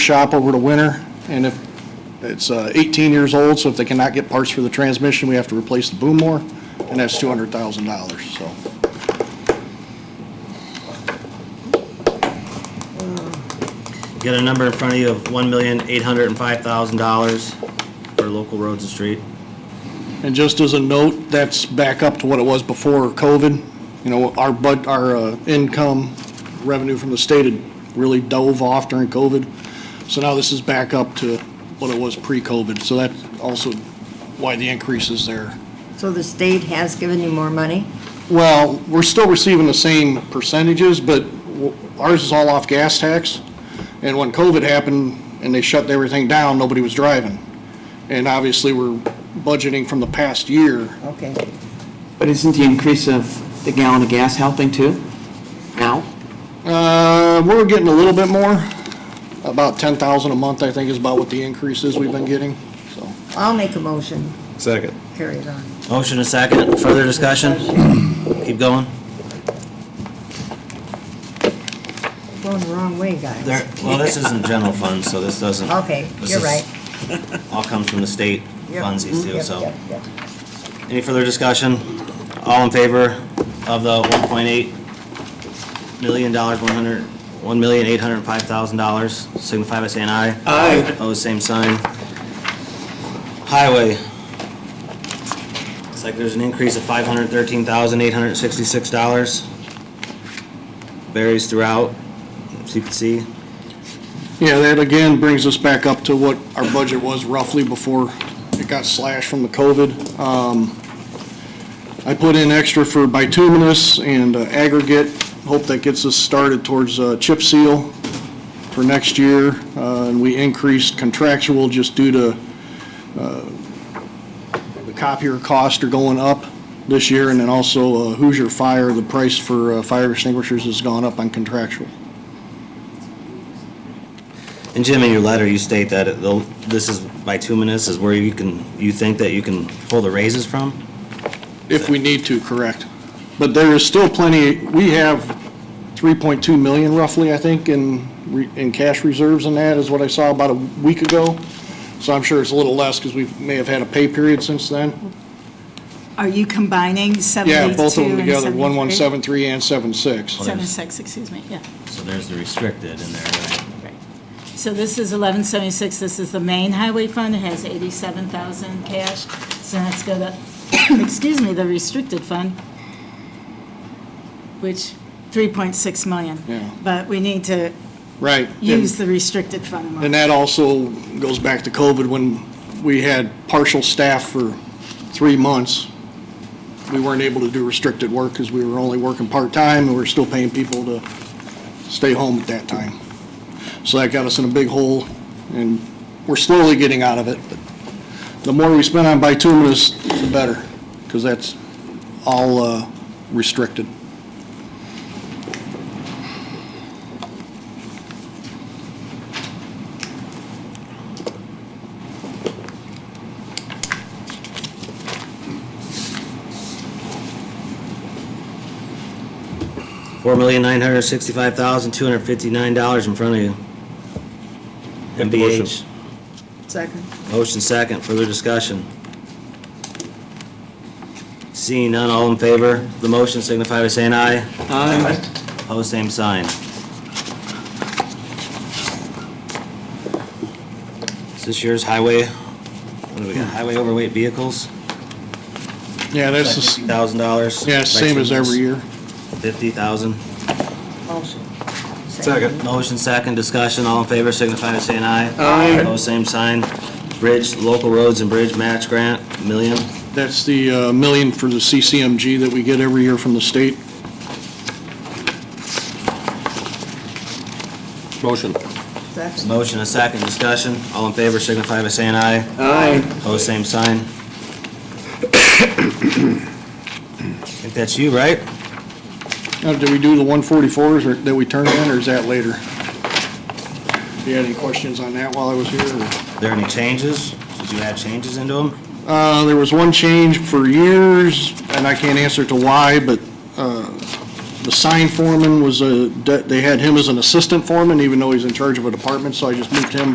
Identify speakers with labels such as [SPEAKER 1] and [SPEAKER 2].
[SPEAKER 1] shop over the winter, and if, it's uh, 18 years old, so if they cannot get parts for the transmission, we have to replace the boom more, and that's $200,000, so.
[SPEAKER 2] Got a number in front of you of one million, eight hundred and five thousand dollars for local roads and street.
[SPEAKER 1] And just as a note, that's back up to what it was before COVID. You know, our bud, our uh, income revenue from the state had really dove off during COVID. So now this is back up to what it was pre-COVID. So that's also why the increase is there.
[SPEAKER 3] So the state has given you more money?
[SPEAKER 1] Well, we're still receiving the same percentages, but w- ours is all off gas tax. And when COVID happened and they shut everything down, nobody was driving. And obviously, we're budgeting from the past year.
[SPEAKER 3] Okay.
[SPEAKER 4] But isn't the increase of the gallon of gas helping too? Now?
[SPEAKER 1] Uh, we're getting a little bit more, about ten thousand a month, I think is about what the increase is we've been getting, so.
[SPEAKER 3] I'll make a motion,
[SPEAKER 5] Second.
[SPEAKER 3] carry it on.
[SPEAKER 2] Motion a second, further discussion? Keep going.
[SPEAKER 3] Going the wrong way, guys.
[SPEAKER 2] There, well, this isn't general fund, so this doesn't.
[SPEAKER 3] Okay,
[SPEAKER 2] this
[SPEAKER 3] you're
[SPEAKER 2] is-
[SPEAKER 3] right.
[SPEAKER 2] All comes from the state
[SPEAKER 3] Yep,
[SPEAKER 2] funds these two,
[SPEAKER 3] yep,
[SPEAKER 2] so.
[SPEAKER 3] yep, yep.
[SPEAKER 2] Any further discussion? All in favor of the one point eight million dollars, one hundred, one million, eight hundred and five thousand dollars, signify by saying aye.
[SPEAKER 4] Aye.
[SPEAKER 2] Opposed, same sign. Highway. Looks like there's an increase of five hundred thirteen thousand, eight hundred and sixty-six dollars. Varies throughout, as you can see.
[SPEAKER 1] Yeah, that again brings us back up to what our budget was roughly before it got slashed from the COVID. Um, I put in extra for bituminous and uh, aggregate, hope that gets us started towards uh, chip seal for next year. Uh, And we increased contractual just due to uh, the copier costs are going up this year. And then also uh, Hoosier Fire, the price for uh, fire extinguishers has gone up on contractual.
[SPEAKER 2] And Jim, in your letter, you state that it- the- this is bituminous is where you can, you think that you can pull the raises from?
[SPEAKER 1] If we need to, correct. But there is still plenty, we have 3.2 million roughly, I think, in, re- in cash reserves and that is what I saw about a week ago. So I'm sure it's a little less because we may have had a pay period since then.
[SPEAKER 6] Are you combining 72
[SPEAKER 1] Yeah,
[SPEAKER 6] and 73?
[SPEAKER 1] both of them together, 1173 and 76.
[SPEAKER 6] 76, excuse me, yeah.
[SPEAKER 2] So there's the restricted in there, right?
[SPEAKER 6] right. So this is 1176, this is the main highway fund, it has 87,000 cash. So that's got to, excuse me, the restricted fund, which, 3.6 million.
[SPEAKER 1] Yeah.
[SPEAKER 6] But we need to
[SPEAKER 1] Right.
[SPEAKER 6] use the restricted fund more.
[SPEAKER 1] And that also goes back to COVID when we had partial staff for three months. We weren't able to do restricted work because we were only working part-time and we were still paying people to stay home at that time. So that got us in a big hole and we're slowly getting out of it. but The more we spend on bituminous, the better, because that's all uh, restricted.
[SPEAKER 2] Four million nine hundred sixty-five thousand two hundred fifty-nine dollars in front of you.
[SPEAKER 5] Make the motion.
[SPEAKER 2] MBH.
[SPEAKER 3] Second.
[SPEAKER 2] Motion second, further discussion. Seeing none, all in favor of the motion signify by saying aye.
[SPEAKER 4] Aye.
[SPEAKER 2] Opposed, same sign. Is this yours, highway? What do we got, highway overweight vehicles?
[SPEAKER 1] Yeah, that's, the s-
[SPEAKER 2] Thousand dollars?
[SPEAKER 1] yeah, same as every year.
[SPEAKER 2] Fifty thousand.
[SPEAKER 3] Motion.
[SPEAKER 5] Second.
[SPEAKER 2] Motion second, discussion, all in favor, signify by saying aye.
[SPEAKER 4] Aye.
[SPEAKER 2] Opposed, same sign. Bridge, local roads and bridge match grant, million.
[SPEAKER 1] That's the uh, million for the CCMG that we get every year from the state.
[SPEAKER 5] Motion.
[SPEAKER 3] Second.
[SPEAKER 2] Motion a second, discussion, all in favor, signify by saying aye.
[SPEAKER 4] Aye.
[SPEAKER 2] Opposed, same sign. I think that's you, right?
[SPEAKER 1] Now, do Uh, we do the 144s or that we turned in, or is that later? If you had any questions on that while I was here? or-
[SPEAKER 2] There any changes? Did you add changes into them?
[SPEAKER 1] Uh, there was one change for years, and I can't answer to why, but, uh, the sign foreman was a, they had him as an assistant foreman, even though he's in charge of a department, so I just moved him